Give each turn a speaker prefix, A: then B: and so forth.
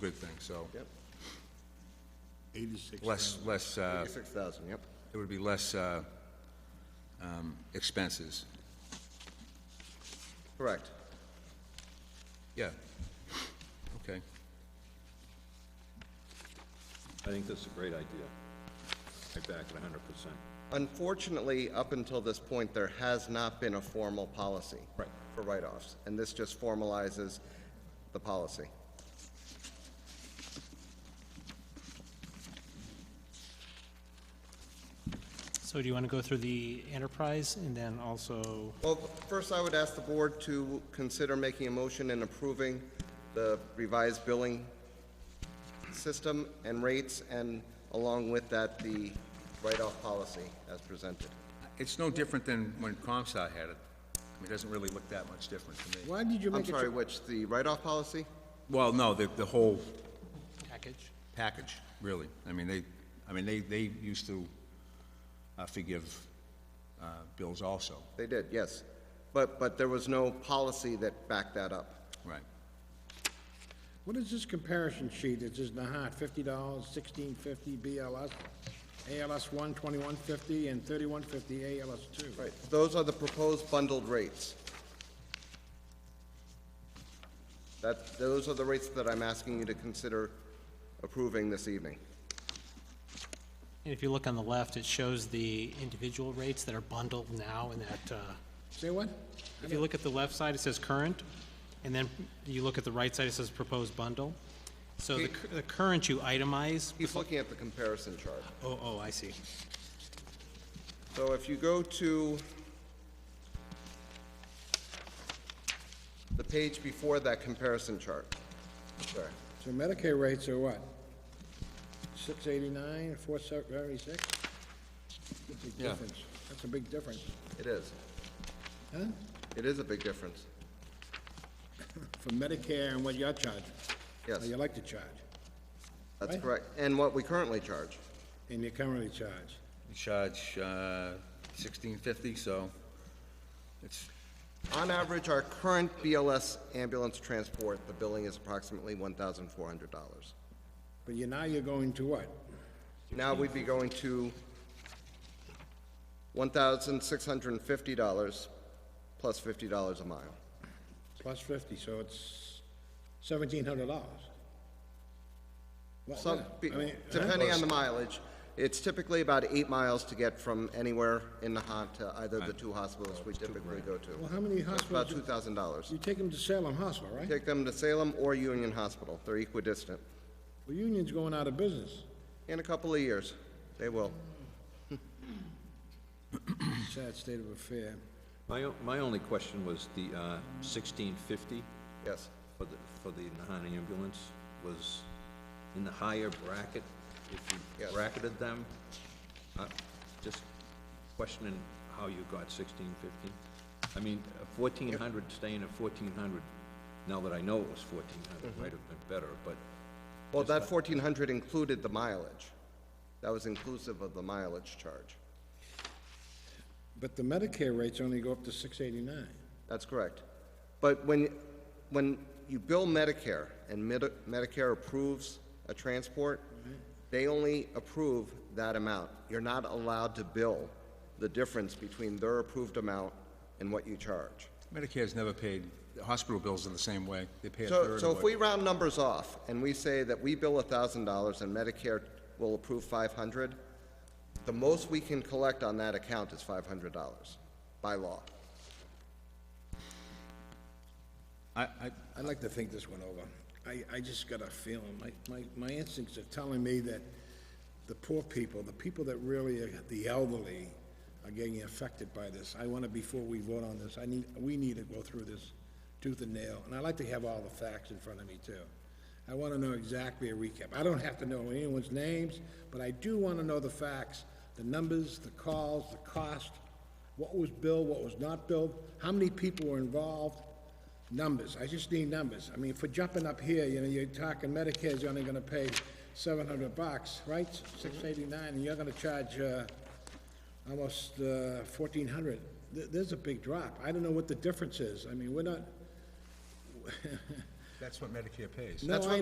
A: good thing, so.
B: Yep,
C: Eighty-six
A: Less,
C: thousand.
A: less, uh,
B: eighty-six thousand, yep.
A: there would be less, uh, um, expenses.
B: Correct.
A: Yeah. Okay.
D: I think that's a great idea. I back it hundred percent.
B: Unfortunately, up until this point, there has not been a formal policy.
D: Right.
B: For write-offs, and this just formalizes the policy.
E: So do you want to go through the enterprise and then also,
B: Well, first, I would ask the board to consider making a motion and approving the revised billing system and rates, and along with that, the write-off policy as presented.
A: It's no different than when ComSci had it. I mean, It doesn't really look that much different to me.
C: Why did you
B: I'm
C: make it,
B: sorry,
C: your-
B: which, the write-off policy?
A: Well, no, the, the whole
E: package?
A: package, really. I mean, they, I mean, they, they used to uh, forgive uh, bills also,
B: They did, yes. But, but there was no policy that backed that up.
A: right?
C: what is this comparison sheet? It's just Nahat, fifty dollars, sixteen fifty BLS, ALS one, twenty-one fifty, and thirty-one fifty ALS two.
B: Right, those are the proposed bundled rates. That, those are the rates that I'm asking you to consider approving this evening.
E: And if you look on the left, it shows the individual rates that are bundled now in that, uh,
C: Say what?
E: if you look at the left side, it says current, and then you look at the right side, it says proposed bundle. So the, cur- the current you itemize,
B: He's looking at the comparison chart.
E: oh, oh, I see.
B: So if you go to the page before that comparison chart, there.
C: So Medicare rates are what? Six eighty-nine, four seventy-six? That's a big
A: Yeah.
C: difference. That's a big difference,
B: It is.
C: huh?
B: It is a big difference.
C: For Medicare and what you're charging.
B: Yes.
C: Or you like to charge,
B: That's
C: Right.
B: correct. And what we currently charge.
C: and you currently charge.
A: We charge uh, sixteen fifty, so it's,
B: On average, our current BLS ambulance transport, the billing is approximately one thousand four hundred dollars.
C: But you, now you're going to what?
B: Now we'd be going to one thousand six hundred and fifty dollars plus fifty dollars a mile.
C: Plus fifty, so it's seventeen hundred dollars. Well,
B: Some,
C: yeah, I mean,
B: depending on the mileage, it's typically about eight miles to get from anywhere in Nahant to either of the two hospitals we typically go to.
C: Well, how many
B: About
C: hospitals,
B: two
C: do-
B: thousand dollars.
C: you take them to Salem Hospital, right?
B: Take them to Salem or Union Hospital, they're equidistant.
C: Well, Union's going out of business,
B: In a couple of years, they will.
C: sad state of affair.
D: My, o- my only question was the, uh, sixteen fifty
B: Yes,
D: for the, for the Nahani ambulance was in the higher bracket, if you
B: Yes.
D: bracketed them. Uh, Just questioning how you got sixteen fifty. I mean, fourteen hundred, staying at fourteen hundred, now that I know it was fourteen hundred, might have been better, but
B: well, that fourteen hundred included the mileage. That was inclusive of the mileage charge.
C: But the Medicare rates only go up to six eighty-nine.
B: That's correct. But when, when you bill Medicare and Medi- Medicare approves a transport, they only approve that amount. You're not allowed to bill the difference between their approved amount and what you charge.
A: Medicare's never paid, the hospital bills are the same way, they pay a third
B: So,
A: of
B: so if
A: what-
B: we round numbers off and we say that we bill thousand dollars and Medicare will approve five hundred, the most we can collect on that account is five hundred dollars by law.
A: I, I,
C: I'd like to think this one over. I, I just got a feeling, my, my, my instincts are telling me that the poor people, the people that really are, the elderly, are getting affected by this. I wanna, before we vote on this, I need, we need to go through this tooth and nail, and I like to have all the facts in front of me too. I wanna know exactly a recap. I don't have to know anyone's names, but I do wanna know the facts, the numbers, the calls, the cost, what was billed, what was not billed, how many people were involved, Numbers, I just need numbers. I mean, for jumping up here, you know, you're talking Medicare's only gonna pay seven hundred bucks, right? Six eighty-nine, and you're gonna charge, uh, almost, uh, fourteen hundred. There, there's a big drop. I don't know what the difference is. I mean, we're not,
A: that's what Medicare pays.
C: no,
B: That's
C: I
B: what